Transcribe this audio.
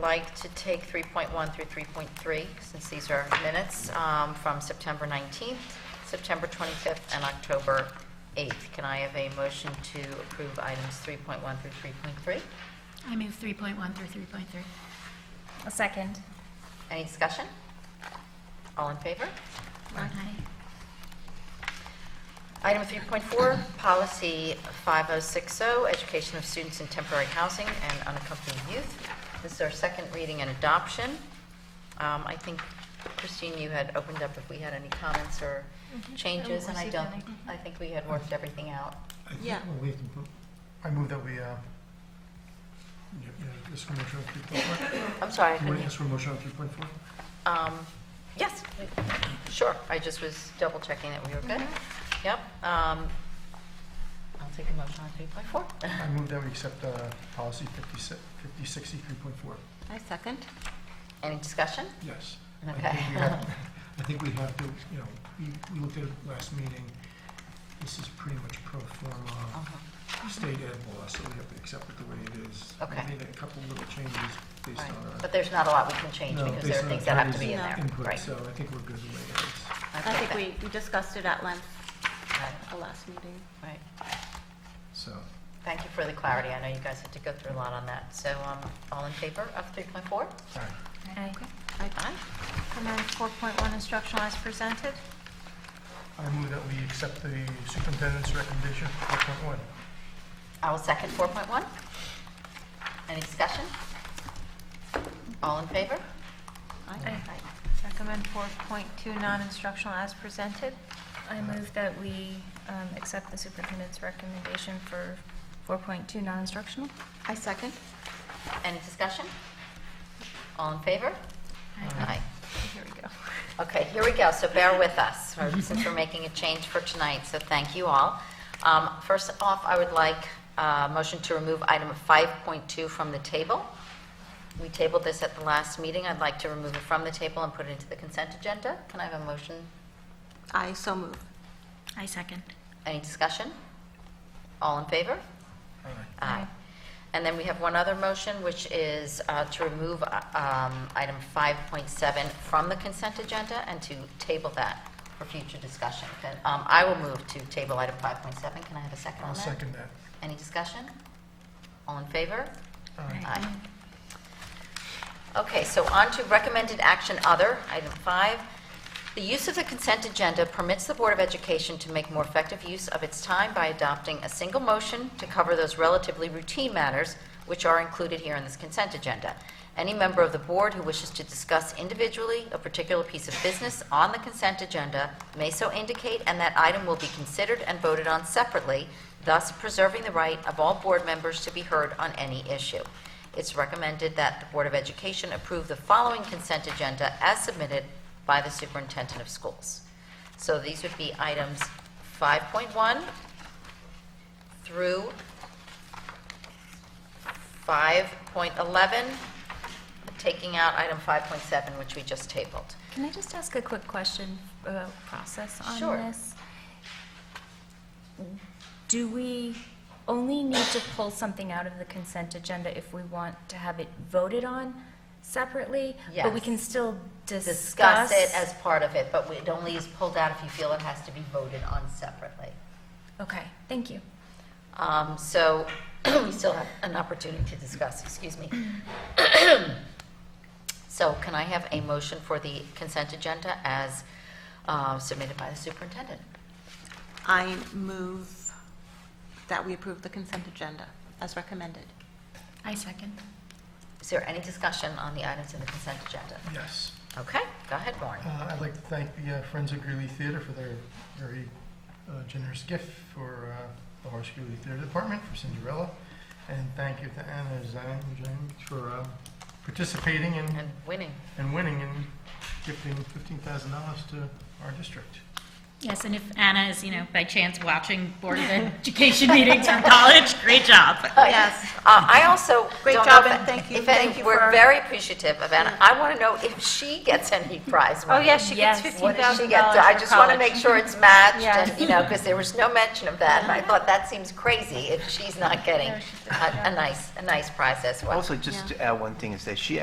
like to take 3.1 through 3.3, since these are minutes um, from September 19th, September 25th, and October 8th. Can I have a motion to approve items 3.1 through 3.3? I move 3.1 through 3.3. A second. Any discussion? All in favor? Aye. Item 3.4, Policy 5060, oh, Education of Students in Temporary Housing and Unaccompanied Youth. This is our second reading and adoption. Um, I think, Christine, you had opened up if we had any comments or Mm-hmm. changes, and I don't, I think we had worked everything out. I think Yeah. we can put- I move that we, uh, yeah, yeah, this one motion on three point four. I'm sorry, I You couldn't, want to ask for a motion on three point four? um, yes, sure, I just was double checking that we were good. Mm-hmm. Yep. um, I'll take a motion on 3.4. I move that we accept, uh, policy fifty-six, fifty sixty three point four. I second. Any discussion? Yes. I think Okay. we have- I think we have to, you know, we, we looked at it last meeting. This is pretty much pro forma Uh-huh. state ed law, so we have to accept it the way it is. We Okay. made a couple little changes based Right. on. uh, But there's not a lot we can change no, because based there are on things that have to be in attorney's there. input, Right. So I think we're good the way it is. I think we, we discussed it at length Right, at the last meeting. right. So, Thank you for the clarity. I know you guys had to go through a lot on that. So um, all in favor of 3.4? all right. Aye. Aye. And then 4.1 instructional as presented. I move that we accept the superintendent's recommendation for 4.1. I will second 4.1. Any discussion? All in favor? Aye. Aye. Recommend 4.2 non-instructional as presented. I move that we um, accept the superintendent's recommendation for 4.2 non-instructional. I second. Any discussion? All in favor? Aye. Here we go. Okay, here we go, so bear with us, or since we're making a change for tonight, so thank you all. Um, First off, I would like a motion to remove item 5.2 from the table. We tabled this at the last meeting, I'd like to remove it from the table and put it into the consent agenda. Can I have a motion? I so move. I second. Any discussion? All in favor? All right. Aye. And then we have one other motion, which is uh, to remove uh, um, item 5.7 from the consent agenda and to table that for future discussion. Then, um, I will move to table item 5.7. Can I have a second on I'll that? second that. Any discussion? All in favor? All right. Aye. Okay, so on to recommended action other, item five. The use of the consent agenda permits the Board of Education to make more effective use of its time by adopting a single motion to cover those relatively routine matters which are included here in this consent agenda. Any member of the board who wishes to discuss individually a particular piece of business on the consent agenda may so indicate, and that item will be considered and voted on separately, thus preserving the right of all board members to be heard on any issue. It's recommended that the Board of Education approve the following consent agenda as submitted by the superintendent of schools. So these would be items 5.1 through 5.11, taking out item 5.7, which we just tabled. Can I just ask a quick question about process on Sure. this? Do we only need to pull something out of the consent agenda if we want to have it voted on separately? But we Yes. can still Discuss discuss? it as part of it, but it only is pulled out if you feel it has to be voted on separately. Okay, thank you. Um, So we still have an opportunity to discuss, excuse me. So can I have a motion for the consent agenda as uh, submitted by the superintendent? I move that we approve the consent agenda as recommended. I second. Is there any discussion on the items in the consent agenda? Yes. Okay, go ahead, Warren. Uh, I'd like to thank the uh, Friends of Greeley Theater for their very uh, generous gift for uh, the Horace Greeley Theater Department for Cinderella. And thank you to Anna Zhang Zhang for uh, participating and, And winning. and winning and gifting $15,000 to our district. Yes, and if Anna is, you know, by chance watching Board of Education meetings from college, great job. Yes. Uh, I also. Great don't job, know if- and thank you. If any, Thank you we're for- very appreciative of Anna. I want to know if she gets any prize money. Oh, yes, she gets Yes. What does she $15,000 get? I for just want to make college. sure it's matched, Yes. and, you know, because there was no mention of that, and I thought that seems crazy if she's not getting No, a she does. a nice, a nice prize as well. Also, just to add one thing, is that she